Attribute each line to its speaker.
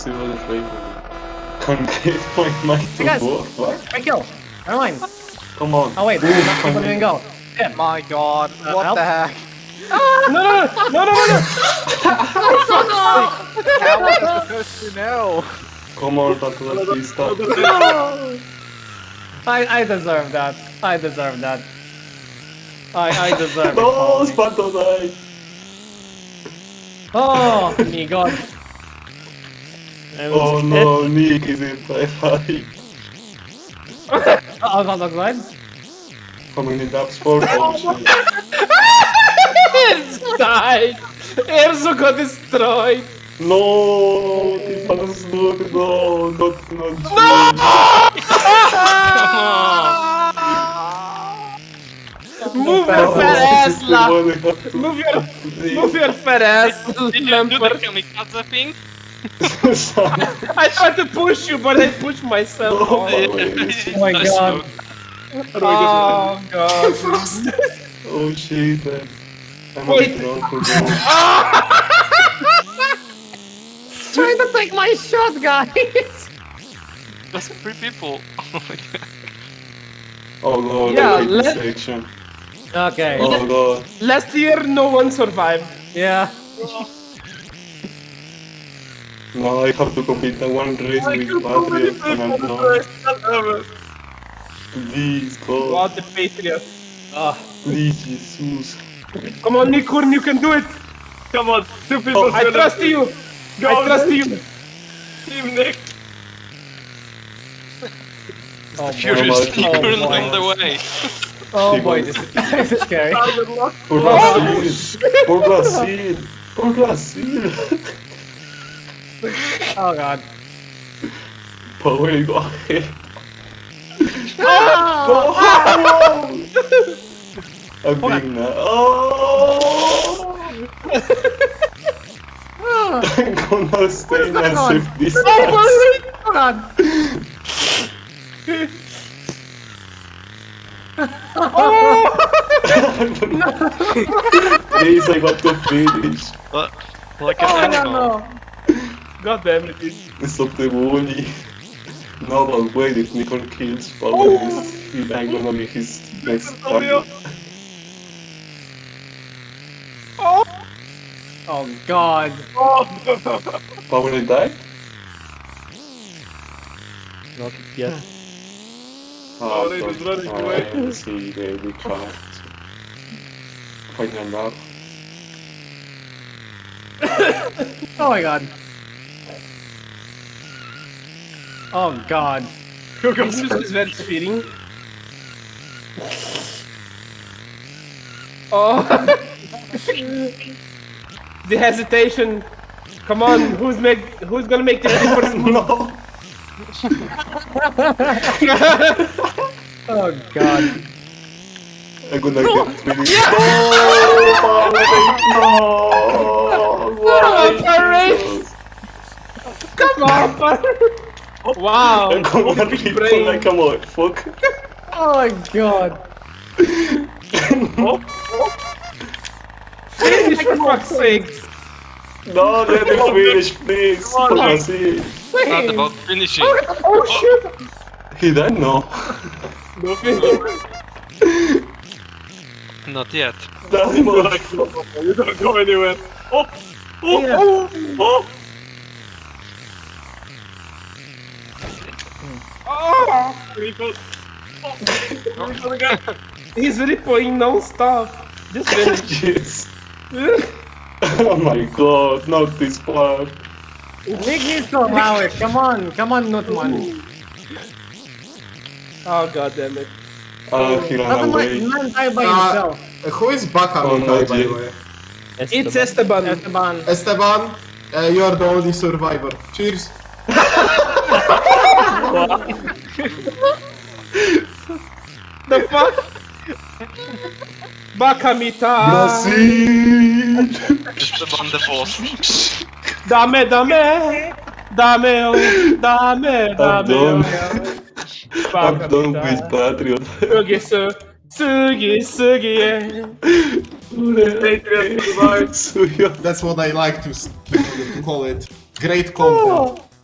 Speaker 1: possível efeito. Concave Playmaker
Speaker 2: Guys.
Speaker 1: boa, claro.
Speaker 2: Right kill. Never mind.
Speaker 1: Come on.
Speaker 2: Oh wait,
Speaker 1: Boa,
Speaker 2: there's not people
Speaker 1: concave.
Speaker 2: doing go. Shit.
Speaker 3: My god, what
Speaker 2: help?
Speaker 3: the heck?
Speaker 2: No, no, no, no, no, no, no.
Speaker 3: How am I supposed to know?
Speaker 1: Come on, Tatula, please stop.
Speaker 2: I, I deserve that. I deserve that. I, I deserve it.
Speaker 1: No,
Speaker 2: Paul.
Speaker 1: Spatolai!
Speaker 2: Oh, my god. It was-
Speaker 1: Oh no, Nick is in sci-fi.
Speaker 2: It, I was not Oh, that right.
Speaker 1: Coming in that sport. Oh, shit.
Speaker 4: It's died! Erzo got destroyed!
Speaker 1: No, this has no, no, not, not. No!
Speaker 2: Ah.
Speaker 4: Move
Speaker 1: Oh,
Speaker 4: your fat ass, la! Move your, move
Speaker 1: Move
Speaker 4: your fat ass,
Speaker 5: Did you do the
Speaker 4: Lampert!
Speaker 5: kamikaze thing?
Speaker 4: I tried to push you, but I pushed myself.
Speaker 1: Oh, my
Speaker 2: Oh my
Speaker 5: Nice
Speaker 2: god.
Speaker 5: move.
Speaker 4: Oh god!
Speaker 1: Oh shit, man. I'm not drunk for this.
Speaker 2: Trying to take my shot, guys.
Speaker 5: That's three people. Oh my god.
Speaker 1: Oh lord,
Speaker 4: Yeah,
Speaker 1: I hate this
Speaker 4: let-
Speaker 1: section.
Speaker 2: Okay.
Speaker 1: Oh lord.
Speaker 4: Last year, no one survived.
Speaker 2: Yeah.
Speaker 1: No, I have to complete that one race
Speaker 4: I
Speaker 1: with
Speaker 4: killed so many
Speaker 1: Patriot and
Speaker 4: people
Speaker 1: I'm
Speaker 4: for the
Speaker 1: drunk.
Speaker 4: first time ever.
Speaker 1: Please,
Speaker 4: Wow,
Speaker 1: God.
Speaker 4: the Patriot.
Speaker 1: Please, Jesus.
Speaker 4: Come on, Nikurn, you can do it!
Speaker 6: Come on, two people.
Speaker 4: Oh, I
Speaker 1: Oh,
Speaker 4: trust you! I trust you!
Speaker 6: Team Nick.
Speaker 2: Oh, boy.
Speaker 1: my
Speaker 5: Furious
Speaker 1: God.
Speaker 5: Nick on the way.
Speaker 2: oh boy, this is, this is scary.
Speaker 1: Por
Speaker 4: Oh,
Speaker 1: Brasil! Por Brasil! Por Brasil!
Speaker 2: Oh god.
Speaker 1: Pô, ele morre.
Speaker 4: Ah,
Speaker 1: I'm being na- Oh! I'm gonna stay in a safe distance.
Speaker 2: Oh god.
Speaker 1: Please, I got to finish.
Speaker 5: Look, like an
Speaker 4: Oh,
Speaker 2: Oh,
Speaker 5: animal.
Speaker 4: God damn it.
Speaker 1: It's up to Wooly. No, but wait, if Nikon kills Paolo, he's- he- I'm gonna be his next target.
Speaker 2: Oh god.
Speaker 1: Paolo died?
Speaker 2: Not yet.
Speaker 1: Oh,
Speaker 6: they
Speaker 1: don't
Speaker 6: just running away.
Speaker 1: cry, See, they will try to find them out.
Speaker 2: Oh my god. Oh god.
Speaker 4: This is very fitting. Oh. the hesitation. Come on, who's make who's gonna make the first move?
Speaker 1: No!
Speaker 2: Oh god.
Speaker 1: I'm gonna get three. No! Paolo,
Speaker 4: Oh,
Speaker 1: no!
Speaker 4: Paolo!
Speaker 1: Jesus.
Speaker 4: Come on, Paolo.
Speaker 1: I'm
Speaker 4: Wow.
Speaker 1: gonna be
Speaker 4: brain.
Speaker 1: like a motherfucker.
Speaker 2: Oh my god.
Speaker 4: Finish for fuck's sake.
Speaker 1: No, let me finish, please. For Brazil.
Speaker 5: It's not about finishing.
Speaker 2: Oh,
Speaker 1: He died? No.
Speaker 4: No finish.
Speaker 5: Not yet.
Speaker 1: That motherfucker.
Speaker 6: You don't go anywhere. Oh, oh,
Speaker 2: Yeah.
Speaker 6: oh, oh. Oh, people. Oh, we're gonna get
Speaker 4: He's ripping non-stop. Just finish.
Speaker 1: Jeez. Oh my god, not this part.
Speaker 2: Nick needs to allow it. Come on. Come on, Nutman.
Speaker 4: oh god damn it.
Speaker 1: I'll heal on
Speaker 2: Doesn't
Speaker 1: my
Speaker 2: like
Speaker 1: way.
Speaker 2: man die by
Speaker 7: Uh,
Speaker 2: himself.
Speaker 7: Who is Bakan
Speaker 1: Oh, no,
Speaker 7: by the
Speaker 1: Jay.
Speaker 7: way?
Speaker 4: It's Esteban.
Speaker 2: Esteban.
Speaker 7: Esteban, uh, you are the only survivor. Cheers.
Speaker 4: The fuck? Bakamita.
Speaker 1: Brazil!
Speaker 5: Just the one the boss.
Speaker 4: Dame, dame. Dame, oh, dame,
Speaker 1: I'm
Speaker 4: dame.
Speaker 1: done.
Speaker 4: oh.
Speaker 1: I'm
Speaker 4: Bakamita.
Speaker 1: done with Patreon.
Speaker 4: Sugisu, sugi, sugi, yeah.
Speaker 1: Patreon.
Speaker 2: Oh. 어.
Speaker 7: That's what I like to, s- to call it. Great content.